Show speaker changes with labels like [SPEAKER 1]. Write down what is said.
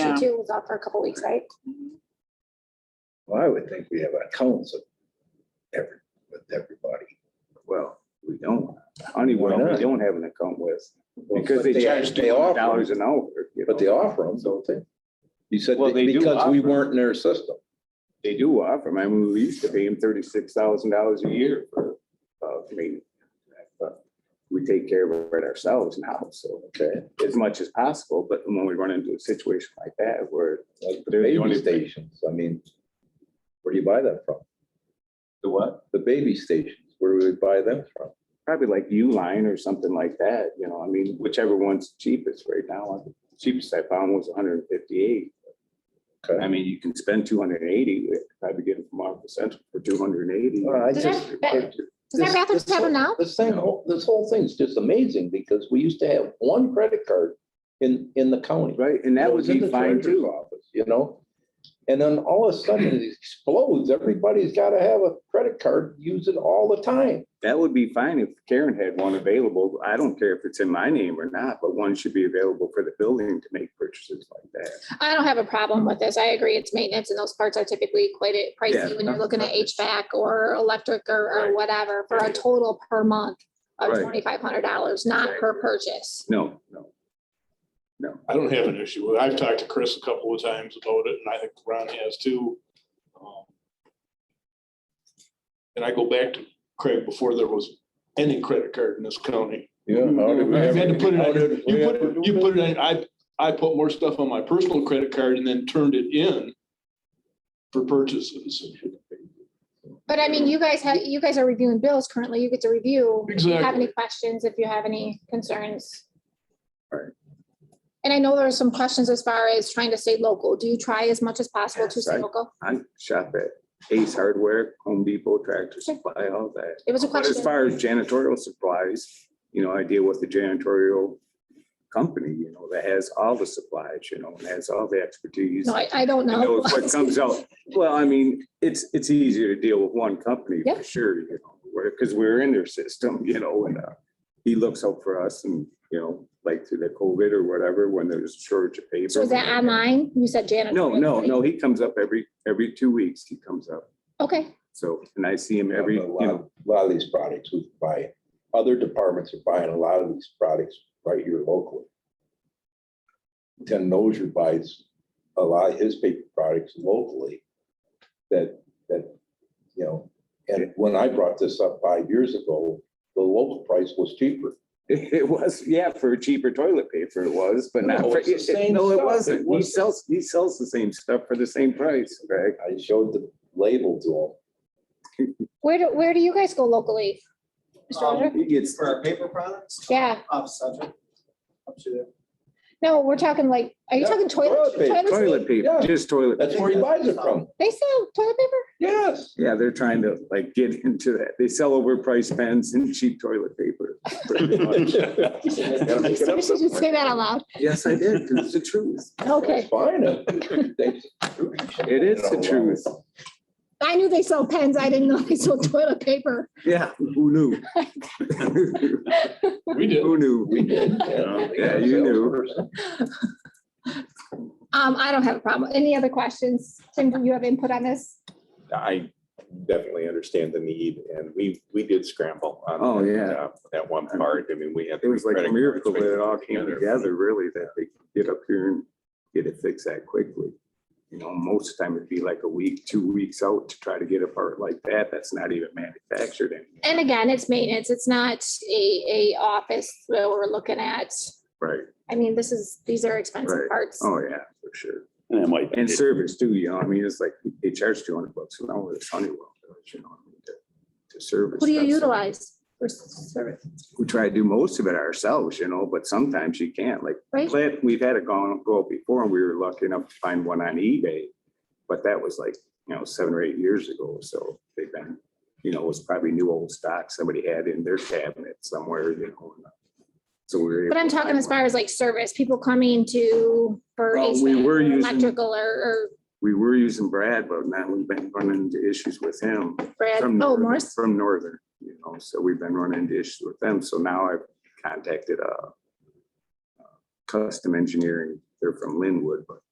[SPEAKER 1] Yeah.
[SPEAKER 2] She too was out for a couple weeks, right?
[SPEAKER 3] Well, I would think we have accounts of every, with everybody.
[SPEAKER 4] Well, we don't. Honeywell,
[SPEAKER 3] Why not?
[SPEAKER 4] we don't have an account with, because they
[SPEAKER 3] But
[SPEAKER 4] charge
[SPEAKER 3] they
[SPEAKER 4] two hundred
[SPEAKER 3] offer
[SPEAKER 4] dollars
[SPEAKER 3] them.
[SPEAKER 4] an hour. you
[SPEAKER 3] But they
[SPEAKER 4] know.
[SPEAKER 3] offer them, don't they? You said
[SPEAKER 4] Well,
[SPEAKER 3] that
[SPEAKER 4] they do
[SPEAKER 3] because we
[SPEAKER 4] offer 'em.
[SPEAKER 3] weren't in their system.
[SPEAKER 4] They do offer 'em. I mean, we used to pay them thirty-six thousand dollars a year for, uh, maintenance. But We take care of it ourselves now, so
[SPEAKER 3] Okay.
[SPEAKER 4] as much as possible, but when we run into a situation like that where.
[SPEAKER 3] Like the
[SPEAKER 4] They're the
[SPEAKER 3] baby
[SPEAKER 4] only-
[SPEAKER 3] stations, I mean, where do you buy that from?
[SPEAKER 4] The what?
[SPEAKER 3] The baby stations, where do we buy them from?
[SPEAKER 4] Probably like U-Line or something like that, you know, I mean, whichever one's cheapest right now. uh, Cheapest I found was hundred and fifty-eight. I
[SPEAKER 3] Okay.
[SPEAKER 4] mean, you can spend two hundred and eighty, probably get it from Office Central for two hundred and eighty.
[SPEAKER 3] Well, I
[SPEAKER 2] Does
[SPEAKER 3] just-
[SPEAKER 2] that- Does that
[SPEAKER 3] This-
[SPEAKER 2] Rapids
[SPEAKER 3] this
[SPEAKER 2] have them
[SPEAKER 3] whole-
[SPEAKER 2] now?
[SPEAKER 3] This thing, whole- this whole thing's just amazing because we used to have one credit card in, in the county.
[SPEAKER 4] Right, and that
[SPEAKER 3] It
[SPEAKER 4] would
[SPEAKER 3] in
[SPEAKER 4] be
[SPEAKER 3] the
[SPEAKER 4] fine
[SPEAKER 3] treasurer's
[SPEAKER 4] too.
[SPEAKER 3] office, You know? And then all of a sudden it explodes. Everybody's got to have a credit card, use it all the time.
[SPEAKER 4] That would be fine if Karen had one available. I don't care if it's in my name or not, but one should be available for the building to make purchases like that.
[SPEAKER 2] I don't have a problem with this. I agree, it's maintenance and those parts are typically quite a- pricey
[SPEAKER 4] Yeah.
[SPEAKER 2] when you're looking at HVAC or electric or, or
[SPEAKER 4] Right.
[SPEAKER 2] whatever for a total per month of
[SPEAKER 4] Right.
[SPEAKER 2] twenty-five hundred dollars, not per purchase.
[SPEAKER 4] No, no. No,
[SPEAKER 5] I don't have an issue with it. I've talked to Chris a couple of times about it, and I think Ron has too. Um, And I go back to Craig before there was any credit card in this county.
[SPEAKER 3] Yeah. how did we
[SPEAKER 5] You
[SPEAKER 3] ever-
[SPEAKER 5] had to put it,
[SPEAKER 3] how did
[SPEAKER 5] on-
[SPEAKER 3] we
[SPEAKER 5] you put
[SPEAKER 3] ever do
[SPEAKER 5] it, you
[SPEAKER 3] that?
[SPEAKER 5] put it, in- I, I put more stuff on my personal credit card and then turned it in for purchases.
[SPEAKER 2] But I mean, you guys have, you guys are reviewing bills currently. You get to review. If you have
[SPEAKER 5] Exactly.
[SPEAKER 2] any questions, if you have any concerns.
[SPEAKER 4] Right.
[SPEAKER 2] And I know there are some questions as far as trying to stay local. Do you try as much as possible to
[SPEAKER 4] Yes,
[SPEAKER 2] stay
[SPEAKER 4] I-
[SPEAKER 2] local?
[SPEAKER 4] I shop at Ace Hardware, Home Depot, Tractor Supply, all that.
[SPEAKER 2] It was a
[SPEAKER 4] But as
[SPEAKER 2] question.
[SPEAKER 4] far as janitorial supplies, you know, I deal with the janitorial company, you know, that has all the supplies, you know, and has all the expertise.
[SPEAKER 2] No, I, I don't
[SPEAKER 4] and
[SPEAKER 2] know.
[SPEAKER 4] knows What comes out. Well, I mean, it's, it's easier to deal with one company
[SPEAKER 2] Yeah.
[SPEAKER 4] for sure, you know, because we're in their system, you know, and uh, he looks out for us and, you know, like through the COVID or whatever, when there's a shortage of paper.
[SPEAKER 2] So is that online? You said janitor.
[SPEAKER 4] No, no, no, he comes up every, every two weeks, he comes up.
[SPEAKER 2] Okay,
[SPEAKER 4] So, and I see him every,
[SPEAKER 3] A
[SPEAKER 4] you
[SPEAKER 3] lot-
[SPEAKER 4] know,
[SPEAKER 3] a Lot of these products we buy, other departments are buying a lot of these products right here locally. Tim Nozier buys a lot of his paper products locally that, that, you know, and when I brought this up five years ago, the local price was cheaper.
[SPEAKER 4] It was, yeah, for cheaper toilet paper it was, but not
[SPEAKER 3] No,
[SPEAKER 4] for,
[SPEAKER 3] it's the
[SPEAKER 4] it- it-
[SPEAKER 3] same
[SPEAKER 4] no, it
[SPEAKER 3] stuff. It
[SPEAKER 4] wasn't. He
[SPEAKER 3] wasn't.
[SPEAKER 4] sells, he sells the same stuff for the same price, Greg.
[SPEAKER 3] I showed the label to
[SPEAKER 2] where do, where do you guys go locally? Mr.
[SPEAKER 6] Um,
[SPEAKER 2] Roger?
[SPEAKER 4] He gets,
[SPEAKER 6] For our paper products?
[SPEAKER 2] Yeah,
[SPEAKER 6] Up subject. Up to there.
[SPEAKER 2] no, we're talking like, are you
[SPEAKER 3] Yeah,
[SPEAKER 2] talking toilet?
[SPEAKER 3] toilet paper,
[SPEAKER 2] toilets?
[SPEAKER 4] toilet paper,
[SPEAKER 3] Yeah.
[SPEAKER 4] just
[SPEAKER 3] him.
[SPEAKER 4] toilet.
[SPEAKER 3] That's where he buys it from.
[SPEAKER 2] They sell toilet paper?
[SPEAKER 3] Yes.
[SPEAKER 4] Yeah, they're trying to like get into that. They sell overpriced pens and cheap toilet paper. pretty much.
[SPEAKER 3] Gotta make it up
[SPEAKER 2] I should just
[SPEAKER 3] somewhere.
[SPEAKER 2] say that out loud.
[SPEAKER 4] Yes, I did, 'cause it's the truth.
[SPEAKER 2] Okay.
[SPEAKER 3] Fine. It
[SPEAKER 4] It is the truth.
[SPEAKER 2] I knew they sold pens. I didn't know they sold toilet paper.
[SPEAKER 4] Yeah, who knew?
[SPEAKER 5] We did.
[SPEAKER 4] Who knew?
[SPEAKER 3] We did.
[SPEAKER 4] Yeah, you knew.
[SPEAKER 2] Um, I don't have a problem. Any other questions? Tim, do you have input on this?
[SPEAKER 7] I definitely understand the need and we, we did scramble. on
[SPEAKER 4] Oh, yeah.
[SPEAKER 7] that, uh, That one part, I mean, we had.
[SPEAKER 4] It was like a
[SPEAKER 7] credit
[SPEAKER 4] miracle
[SPEAKER 7] cards
[SPEAKER 4] that it all came
[SPEAKER 7] together.
[SPEAKER 4] together, really, that they could get up here and get it fixed that quickly. You know, most of the time it'd be like a week, two weeks out to try to get a part like that. That's not even manufactured anymore.
[SPEAKER 2] And again, it's maintenance. It's not a, a office where we're looking at.
[SPEAKER 4] Right.
[SPEAKER 2] I mean, this is, these are expensive
[SPEAKER 4] Right.
[SPEAKER 2] parts.
[SPEAKER 4] Oh, yeah, for sure.
[SPEAKER 8] And it might,
[SPEAKER 4] And service too, you know, I mean, it's like they charge two hundred bucks an hour at Honeywell, you know, I mean, to- to service.
[SPEAKER 2] Who do you
[SPEAKER 4] stuff.
[SPEAKER 2] utilize for service,
[SPEAKER 4] We try to do most of it ourselves, you know, but sometimes you can't, like
[SPEAKER 2] right?
[SPEAKER 4] Plant, we've had it gone, go up before and we were lucky enough to find one on eBay. But that was like, you know, seven or eight years ago. So they've been, you know, it was probably new old stock somebody had in their cabinet somewhere, you know. and uh, So we were.
[SPEAKER 2] But I'm
[SPEAKER 4] able to
[SPEAKER 2] talking
[SPEAKER 4] find
[SPEAKER 2] as
[SPEAKER 4] one.
[SPEAKER 2] far as like service, people coming to for
[SPEAKER 4] Well, we
[SPEAKER 2] HVAC
[SPEAKER 4] were
[SPEAKER 2] or
[SPEAKER 4] using-
[SPEAKER 2] electrical or,
[SPEAKER 4] We were using Brad, but now we've been running into issues with him
[SPEAKER 2] or Brad,
[SPEAKER 4] from.
[SPEAKER 2] oh,
[SPEAKER 4] Northern-
[SPEAKER 2] Morse.
[SPEAKER 4] From Northern, you know, so we've been running into issues with them. So now I've contacted uh uh, Custom Engineering. They're from Linwood, but